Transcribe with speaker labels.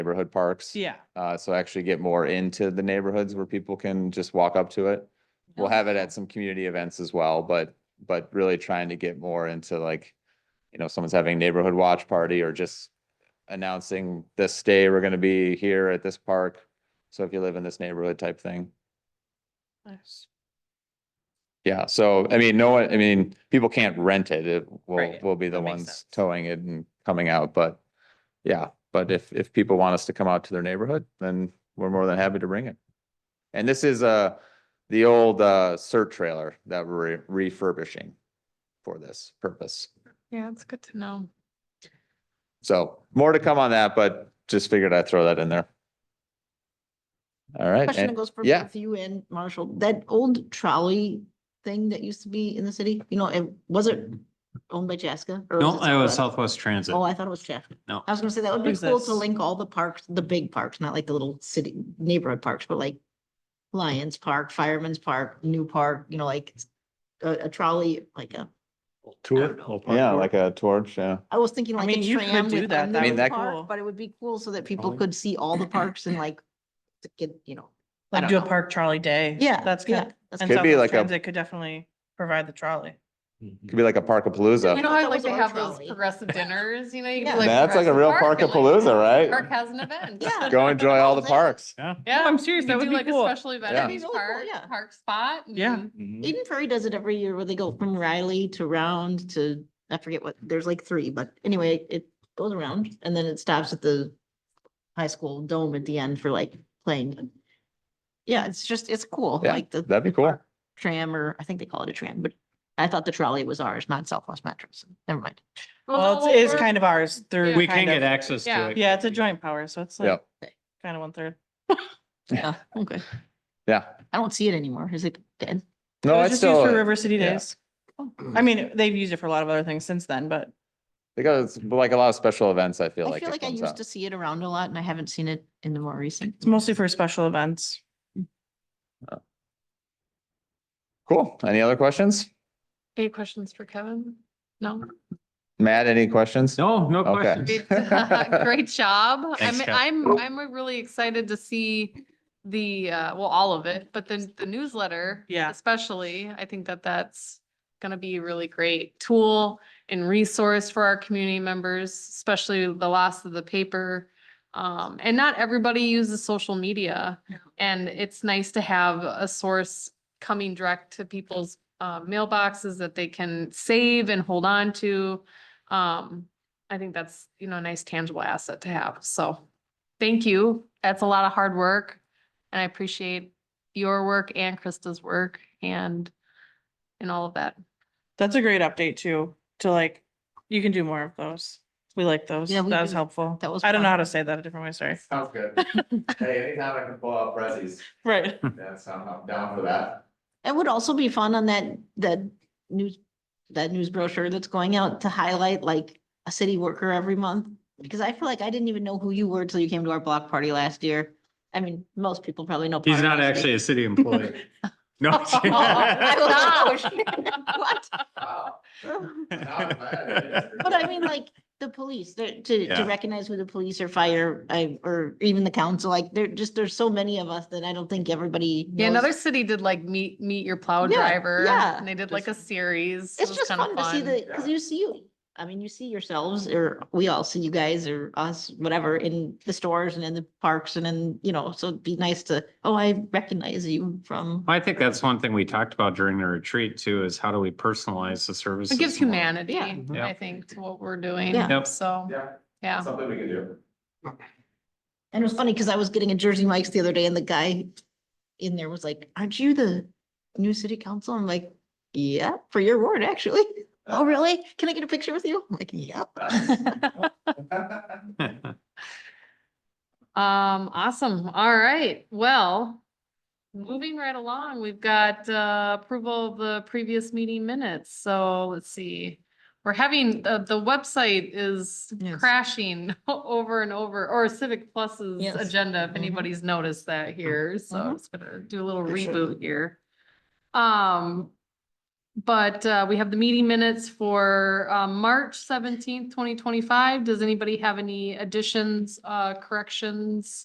Speaker 1: neighborhood parks.
Speaker 2: Yeah.
Speaker 1: Uh, so actually get more into the neighborhoods where people can just walk up to it. We'll have
Speaker 2: Oh.
Speaker 1: it at some community events as well, but, but really trying to get more into like, you know, someone's having a neighborhood watch party or just announcing this day, we're gonna be here at this park. So if you live in this neighborhood type thing.
Speaker 2: Nice.
Speaker 1: Yeah, so I mean, no, one. I mean, people can't rent it. It will,
Speaker 2: Right,
Speaker 1: will be the
Speaker 2: that makes
Speaker 1: ones
Speaker 2: sense.
Speaker 1: towing it and coming out, but yeah, but if, if people want us to come out to their neighborhood, then we're more than happy to bring it. And this is, uh, the old, uh, cert trailer that we're refurbishing for this purpose.
Speaker 2: Yeah, it's good to know.
Speaker 1: So more to come on that, but just figured I'd throw that in there. All right.
Speaker 3: Question that
Speaker 1: and-
Speaker 3: goes for
Speaker 1: yeah.
Speaker 3: both you and Marshall, that old trolley thing that used to be in the city, you know, it, was it owned by Chaska? or
Speaker 4: No,
Speaker 3: it
Speaker 4: I was
Speaker 3: Southwest?
Speaker 4: Southwest Transit.
Speaker 3: Oh, I thought it was Chaska.
Speaker 4: No.
Speaker 3: I was gonna say that would
Speaker 2: What
Speaker 3: be
Speaker 2: is
Speaker 3: cool
Speaker 2: this?
Speaker 3: to link all the parks, the big parks, not like the little city neighborhood parks, but like Lions Park, Fireman's Park, New Park, you know, like a, a trolley, like a,
Speaker 5: Tour?
Speaker 1: Yeah, like a torch, yeah.
Speaker 3: I was thinking
Speaker 2: I
Speaker 3: like
Speaker 2: mean,
Speaker 3: a
Speaker 2: you could
Speaker 3: tram
Speaker 2: do
Speaker 3: with
Speaker 2: that.
Speaker 3: a
Speaker 2: That
Speaker 1: would
Speaker 3: new
Speaker 1: be
Speaker 2: cool.
Speaker 3: park, but it would be cool so that people
Speaker 1: Oh.
Speaker 5: Trolley.
Speaker 3: could see all the parks and like to get, you know. I
Speaker 2: Like
Speaker 3: don't
Speaker 2: do a
Speaker 3: know.
Speaker 2: park trolley day.
Speaker 3: Yeah.
Speaker 2: That's
Speaker 3: yeah,
Speaker 2: good.
Speaker 3: that's
Speaker 2: And
Speaker 1: Could be
Speaker 2: Southwest
Speaker 1: like a-
Speaker 2: Transit could definitely provide the trolley.
Speaker 1: Could be like a
Speaker 6: You
Speaker 1: Parkapalooza.
Speaker 6: know,
Speaker 3: thought
Speaker 6: how
Speaker 3: that
Speaker 6: like
Speaker 3: was
Speaker 6: they
Speaker 3: our
Speaker 6: have those
Speaker 3: trolley.
Speaker 6: progressive dinners, you know? you
Speaker 3: Yeah.
Speaker 6: could,
Speaker 1: That's like a
Speaker 6: progressive
Speaker 1: real
Speaker 6: park and, like,
Speaker 1: Parkapalooza, right?
Speaker 6: Park has an event.
Speaker 3: Yeah.
Speaker 1: Go enjoy all the parks.
Speaker 4: Yeah.
Speaker 6: Yeah.
Speaker 2: I'm serious,
Speaker 6: you
Speaker 2: that
Speaker 6: could
Speaker 2: would
Speaker 6: do,
Speaker 2: be
Speaker 6: like, a
Speaker 2: cool.
Speaker 6: Special event
Speaker 1: Yeah.
Speaker 6: at these
Speaker 3: That'd be really cool,
Speaker 6: park,
Speaker 3: yeah.
Speaker 6: park spot.
Speaker 2: Yeah.
Speaker 6: and-
Speaker 3: Eden Prairie does it every year where they go from Riley to Round to, I forget what, there's like three, but anyway, it goes around and then it stops at the high school dome at the end for like playing. Yeah, it's just, it's cool,
Speaker 1: Yeah,
Speaker 3: like the
Speaker 1: That'd be cool.
Speaker 3: tram or I think they call it a tram, but I thought the trolley was ours, not Southwest Metro. So Never mind.
Speaker 2: Well, it is kind of ours through.
Speaker 6: Yeah.
Speaker 4: We
Speaker 2: kind
Speaker 4: can get
Speaker 2: of-
Speaker 4: access
Speaker 6: Yeah.
Speaker 4: to it.
Speaker 2: Yeah, it's a joint power, so it's like
Speaker 1: Yep.
Speaker 2: kind of one third.
Speaker 3: Yeah, okay.
Speaker 1: Yeah.
Speaker 3: I don't see it anymore. Is it dead?
Speaker 2: It
Speaker 1: No,
Speaker 2: was
Speaker 1: it's
Speaker 2: just used
Speaker 1: still,
Speaker 2: For River City
Speaker 1: yeah.
Speaker 2: Days. I mean, they've used it for a lot of other things since then, but
Speaker 1: they got it's like a lot of special events, I feel
Speaker 3: I
Speaker 1: like.
Speaker 3: feel
Speaker 1: it
Speaker 3: like I
Speaker 1: comes
Speaker 3: used
Speaker 1: out.
Speaker 3: to see it around a lot and I haven't seen it in the more recent.
Speaker 2: it's mostly for special events.
Speaker 1: Cool. Any other questions?
Speaker 6: Any questions for Kevin? No?
Speaker 1: Matt, any questions?
Speaker 4: No, no
Speaker 1: Okay.
Speaker 4: questions.
Speaker 6: Great great job.
Speaker 4: Thanks,
Speaker 6: I'm,
Speaker 4: Kat.
Speaker 6: I'm, I'm really excited to see the, uh, well, all of it, but then the newsletter.
Speaker 2: Yeah.
Speaker 6: Especially, I think that that's gonna be a really great tool and resource for our community members, especially the loss of the paper. Um, and not everybody uses social media and it's nice to have a source coming direct to people's uh, mailboxes that they can save and hold on to. Um, I think that's, you know, a nice tangible asset to have. So thank you. That's a lot of hard work. And I appreciate your work and Krista's work and, and all of that.
Speaker 2: That's a great update too, to like, you can do more of those. We like those.
Speaker 3: Yeah,
Speaker 2: That
Speaker 3: we
Speaker 2: was
Speaker 3: do.
Speaker 2: helpful.
Speaker 3: That was
Speaker 2: I don't know
Speaker 3: fun.
Speaker 2: how to say that a different way, sorry.
Speaker 1: Sounds good. Hey, anytime I can pull out Rezzies,
Speaker 2: Right.
Speaker 1: that's, I'm down for that.
Speaker 3: It would also be fun on that, that news, that news brochure that's going out to highlight like a city worker every month. Because I feel like I didn't even know who you were till you came to our block party last year. I mean, most people probably know.
Speaker 4: He's
Speaker 3: part of
Speaker 4: not
Speaker 3: our city.
Speaker 4: actually a city employee. No. I'm
Speaker 3: Oh,
Speaker 4: kidding.
Speaker 3: I was- What? But I mean, like, the police, they're- to, to
Speaker 4: Yeah.
Speaker 3: recognize who the police or fire, I, or even the council, like, there just, there's so many of us that I don't think everybody
Speaker 6: Yeah, another
Speaker 3: knows.
Speaker 6: city did like meet, meet your plow
Speaker 3: Yeah,
Speaker 6: driver.
Speaker 3: yeah.
Speaker 6: And they did like a series. It
Speaker 3: It's
Speaker 6: was
Speaker 3: just
Speaker 6: kinda
Speaker 3: fun to see the, because you see, you. I mean, you see yourselves, or we all see you guys, or us, whatever, in the stores and in the parks and in, you know, so it'd be nice to, oh, I recognize you from.
Speaker 4: I think that's one thing we talked about during the retreat too, is how do we personalize the services?
Speaker 6: It gives
Speaker 4: more?
Speaker 6: humanity,
Speaker 3: Yeah.
Speaker 4: Yeah.
Speaker 6: I think, to what we're doing.
Speaker 3: Yeah.
Speaker 4: Yep.
Speaker 6: So, yeah.
Speaker 1: something we can do.
Speaker 3: And it was funny because I was getting a Jersey Mike's the other day and the guy in there was like, aren't you the new city council? I'm like, yeah, for your ward, actually. Oh, really? Can I get a picture with you? I'm like, yep.
Speaker 6: Um, awesome. All right. Well, moving right along, we've got uh approval of the previous meeting minutes. So let's see. We're having, the, the website is
Speaker 3: Yes.
Speaker 6: crashing over and over, or Civic Plus's
Speaker 3: Yes.
Speaker 6: agenda, if
Speaker 3: Mhm.
Speaker 6: anybody's noticed that here. So
Speaker 3: Mhm.
Speaker 6: it's gonna do a little reboot here. Um, But uh, we have the meeting minutes for uh, March seventeenth, twenty twenty-five. Does anybody have any additions, uh, corrections?